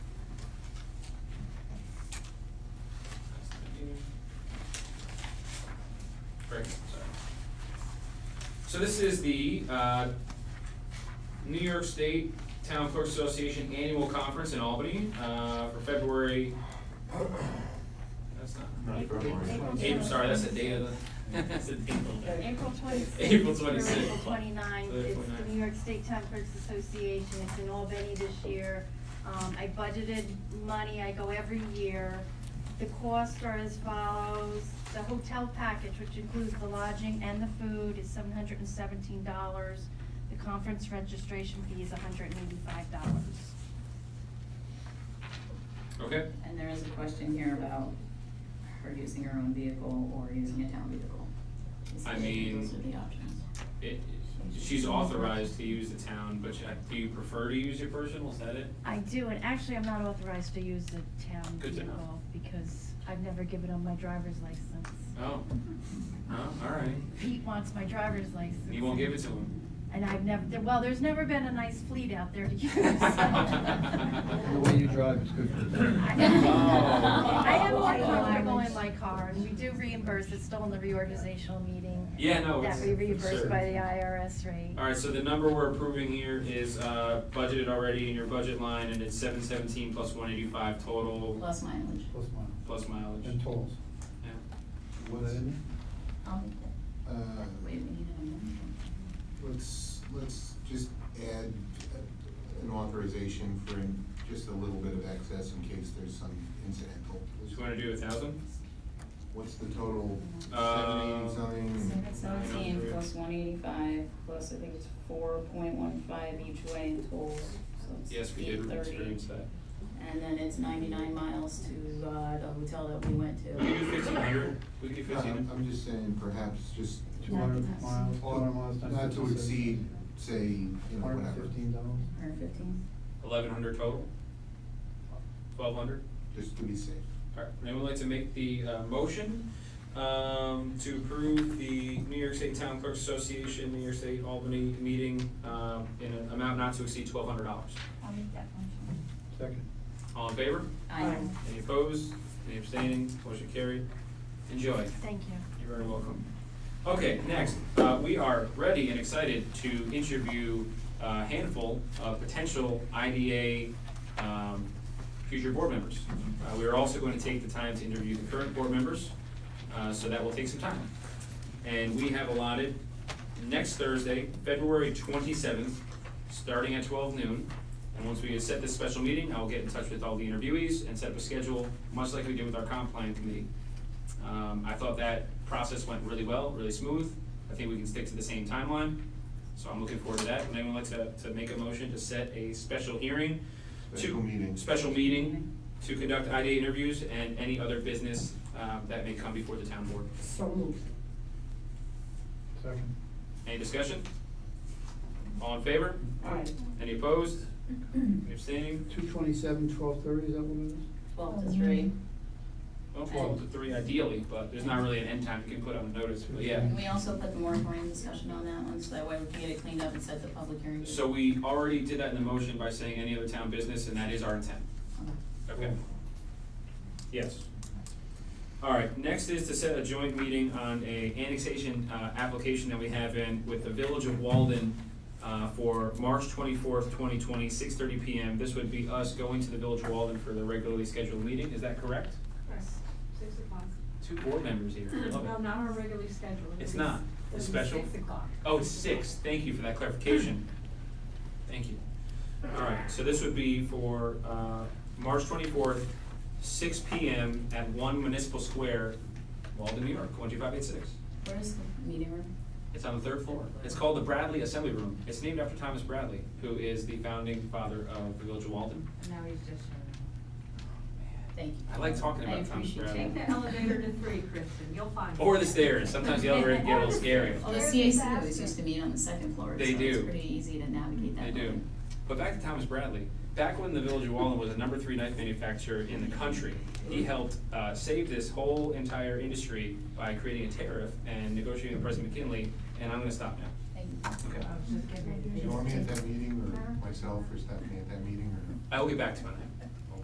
this is the, uh, New York State Town Clerks Association Annual Conference in Albany, uh, for February. That's not, Not April. February. April, sorry, that's the date of the, that's the date of the. April twenty-sixth. April 26th. April twenty-ninth, So the it's the 29th. New York State Town Clerks Association, it's in Albany this year. Um, I budgeted money, I go every year. The costs are as follows, the hotel package, which includes the lodging and the food, is seven hundred and seventeen dollars. The conference registration fee is hundred and eighty-five dollars. Okay, And there is a question here about her using her own vehicle or using a town vehicle. I mean- Those are the options. it, she's authorized to use the town, but you- do you prefer to use your personal, is that it? I do, and actually, I'm not authorized to use the town Good to know. vehicle because I've never given up my driver's license. Oh, oh, alright, Pete wants my driver's license. you won't give it to him? And I've never, there- well, there's never been a nice fleet out there to use. The The way you drive is good for I Oh. I am more comfortable in my car, and we do reimburse, it's still in the reorganizational meeting. Yeah, no, it's. That we reimburse sure. by the IRS rate. All right, so the number we're approving here is uh, budgeted already in your budget line, and it's seven seventeen plus one eighty-five total, Plus mileage. Plus mine. plus mileage. And tolls. Yeah. What that in? I'll make that. Uh, Oh, Wait, we need an amendment. Let's, let's just add uh, an authorization for in- just a little bit of excess in case there's some incidental. Do you wanna do a thousand? What's the total? Uh, Seventy and something? Seven seventeen plus one eighty-five, plus I think it's four point one five each way in tolls, so it's Yes, we eight did thirty. experience that. And then it's ninety-nine miles to, uh, the hotel that we went We could do to. fifteen hundred, we could do No, fifteen I'm, hundred. I'm just saying perhaps just. Two hundred miles, two hundred miles times. Not to exceed, say, you know, Hundred whatever, fifteen dollars. Hundred fifteen. Eleven hundred total? Twelve hundred? just to be safe. All right, anyone like to make the uh, motion um, to approve the New York State Town Clerks Association, New York State Albany meeting um, in an amount not to exceed twelve hundred dollars? I'll make that motion. Second. All in favor? Aye. Any opposed? Any abstaining? Motion carried. Enjoy. Thank you. You're very welcome. Okay, next, uh, we are ready and excited to interview uh, a handful of potential IDA, um, future board members. Uh, we are also going to take the time to interview the current board members, uh, so that will take some time. And we have allotted next Thursday, February twenty-seventh, starting at twelve noon. And once we set this special meeting, I will get in touch with all the interviewees and set up a schedule, much like we did with our comp plan committee. Um, I thought that process went really well, really smooth. I think we can stick to the same timeline, so I'm looking forward to that. Would anyone like to, to make a motion to set a special hearing? to- Special meeting. Special meeting to conduct IDA interviews and any other business, um, that may come before the town board. So moved. Second. Any discussion? All in favor? Aye. Any opposed? Any abstaining? Two twenty-seven, twelve thirty, is that what it is? Twelve to three. Well, twelve to three ideally, but there's not really an end time you can put on a notice, but yeah. Can we also put the moratorium discussion on that one, so that way we can get it cleaned up and set the public hearing? So we already did that in the motion by saying any other town business, and that is our intent. Okay. Okay. Yes. All right, next is to set a joint meeting on a annexation, uh, application that we have in with the Village of Walden, uh, for March twenty-fourth, twenty twenty, six thirty PM. This would be us going to the Village of Walden for the regularly scheduled meeting, is that correct? Six o'clock. Two board members here, I love it. No, not our regularly scheduled. It's not. It's special. Six o'clock. Oh, it's six, thank you for that clarification. Thank you. All right, so this would be for, uh, March twenty-fourth, six P M at One Municipal Square, Walden, New York, one two five eight six. Where is the meeting room? It's on the third floor. It's called the Bradley Assembly Room. It's named after Thomas Bradley, who is the founding father of the Village of Walden. Now he's just showing Thank you. I like talking about Thomas I Bradley. appreciate Take the elevator to three, Kristen, you'll find. Oh, Or the stairs, sometimes the elevator can get a little scary. Well, the CACs used to meet on the second floor, so They do. it's pretty easy to navigate that. They do. building. But back to Thomas Bradley, back when the Village of Walden was a number three knife manufacturer in the country, he helped uh, save this whole entire industry by creating a tariff and negotiating with President McKinley, and I'm gonna stop now. Thank you. Okay. I was just Do you getting. want me at that meeting, or myself or Stephanie at that meeting, or? I will get back to you on that.